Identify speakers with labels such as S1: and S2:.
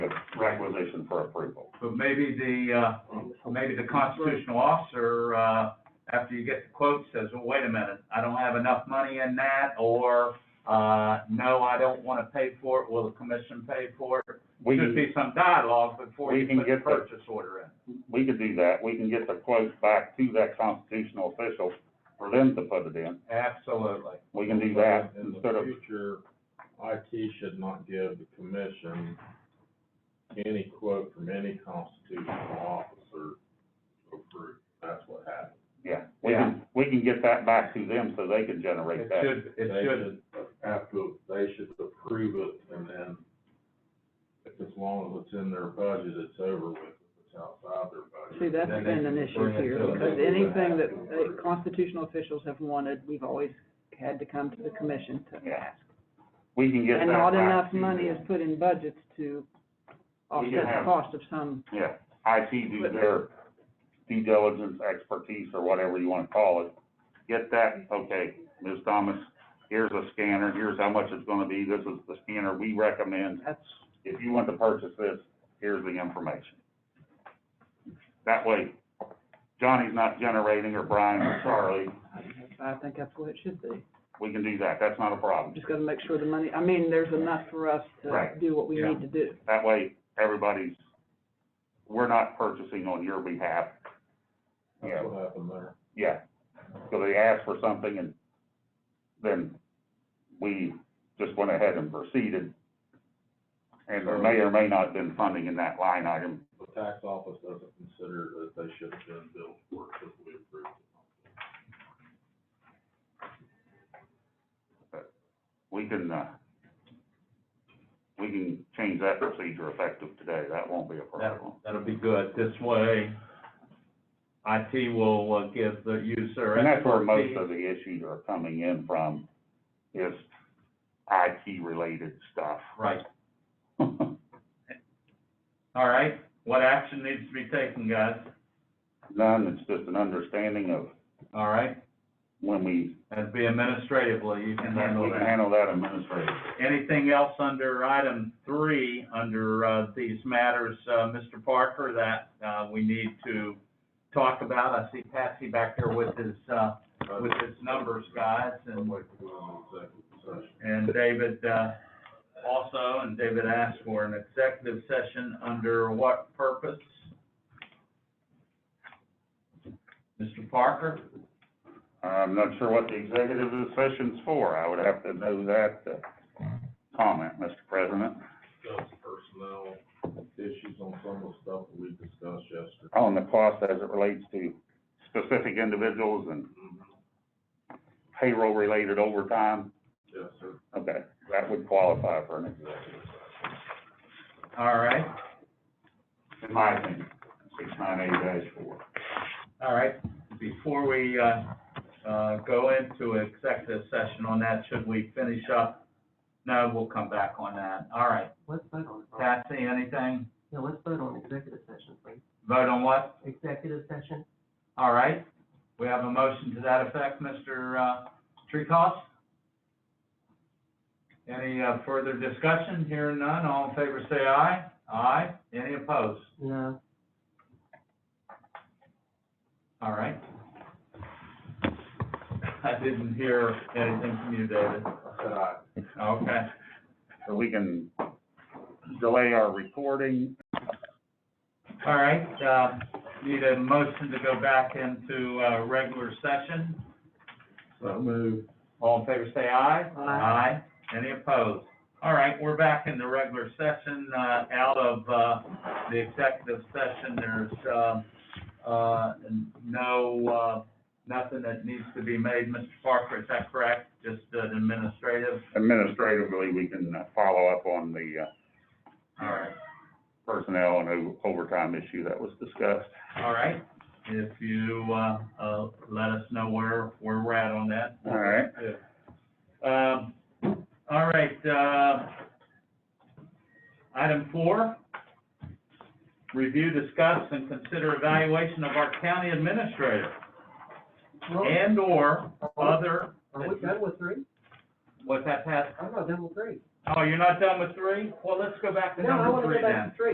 S1: requisition for approval.
S2: But maybe the,
S3: Um,
S2: uh, maybe the constitutional officer, uh, after you get the quote says, well, wait a minute, I don't have enough money in that, or, uh, no, I don't wanna pay for it, will the commission pay for it?
S1: We,
S2: Should be some dialogue before
S1: we
S2: you
S1: can
S2: put the
S1: get the-
S2: purchase order in.
S1: we could do that, we can get the quote back to that constitutional official for them to put it in,
S2: Absolutely.
S1: we can do that
S3: In
S1: instead
S3: the
S1: of,
S3: future, IT should not give the commission any quote from any constitutional officer to approve. That's what happened.
S1: yeah. We can, we can get that back to them so they can generate
S2: It
S1: that.
S2: should, it
S3: They
S2: should,
S3: Have to, they should approve it and then if as long as it's in their budget, it's over with. If it's outside their budget.
S4: See, that's
S3: then
S4: been an
S3: they
S4: issue
S3: bring it
S4: here,
S3: to us.
S4: because
S3: They would
S4: anything
S3: have
S4: that
S3: to approve
S4: uh,
S3: it.
S4: constitutional officials have wanted, we've always had to come to the commission to
S1: Yeah.
S4: ask.
S1: We can get that
S4: And
S1: back
S4: not
S1: to
S4: enough money
S1: them.
S4: is put in budgets to offset the
S1: have-
S4: cost of some,
S1: Yeah, IT do their due diligence, expertise, or whatever you wanna call it. Get that, okay, Ms. Thomas, here's a scanner, here's how much it's gonna be, this is the scanner we recommend.
S4: that's,
S1: If you want to purchase this, here's the information. That way, Johnny's not generating, or Brian or Charlie,
S4: I think that's what it should be.
S1: we can do that, that's not a problem.
S4: Just gotta make sure the money, I mean, there's enough for us to
S1: Right.
S4: do what we
S2: Yeah.
S4: need to do.
S1: That way, everybody's, we're not purchasing on your behalf. You know,
S3: That's what happened there.
S1: Yeah, so they asked for something and then we just went ahead and proceeded. And there may or may not have been funding in that line item.
S3: The tax office doesn't consider that they should have been billed for it because we approved it.
S1: We can, uh, we can change that procedure effective today. That won't be a problem.
S2: that'll, that'll be good. This way, IT will uh, give the user.
S1: And that's where most
S2: expertise.
S1: of the issues are coming in from, is IT related stuff.
S2: Right. All right, what action needs to be taken, guys?
S1: None, it's just an understanding of
S2: All right,
S1: when we,
S2: that'd be administratively, you can
S1: and
S2: handle
S1: we can
S2: that.
S1: handle that administratively.
S2: Anything else under item three, under, uh, these matters, uh, Mr. Parker, that, uh, we need to talk about? I see Patsy back there with his, uh, with his numbers, guys,
S3: I'd
S2: and,
S3: like to go
S2: Um,
S3: on executive session.
S2: and David, uh, also, and David asked for an executive session under what purpose? Mr. Parker?
S1: I'm not sure what the executive session's for. I would have to know that to comment, Mr. President.
S3: discuss personnel issues on some of the stuff that we discussed yesterday.
S1: On the cost as it relates to specific individuals and payroll-related overtime,
S3: Yes, sir.
S1: okay, that would qualify for an executive,
S2: All right,
S1: in my opinion, six nine eight dash four.
S2: all right. Before we, uh, uh, go into executive session on that, should we finish up? No, we'll come back on that. All right.
S5: Let's vote on, it.
S2: Patsy, anything?
S5: yeah, let's vote on executive session, please.
S2: Vote on what?
S5: Executive session,
S2: All right. We have a motion to that effect, Mr. uh, Treehouse? Any, uh, further discussion? Hearing none, all in favor say aye. Aye. Any opposed?
S5: no,
S2: All right. I didn't hear anything from you, David.
S3: I said I,
S2: Okay.
S1: So we can delay our recording.
S2: All right, uh, need a motion to go back into, uh, regular session.
S3: so move.
S2: All in favor, say aye.
S5: Aye.
S2: Any opposed? All right, we're back in the regular session, uh, out of, uh, the executive session. There's, um, uh, no, uh, nothing that needs to be made. Mr. Parker, is that correct? Just an administrative?
S1: Administratively, we can uh, follow up on the uh,
S2: All right.
S1: personnel and o- overtime issue that was discussed.
S2: All right, if you, uh, uh, let us know where, where we're at on that.
S1: All right.
S2: Um, all right, uh, item four, review, discuss, and consider evaluation of our county administrator and/or other,
S5: are we done with three?
S2: what's that, Pat?
S5: I'm not done with three.
S2: Oh, you're not done with three? Well, let's go back to
S5: No, I
S2: number
S5: wanna
S2: three
S5: go
S2: then.
S5: back to three.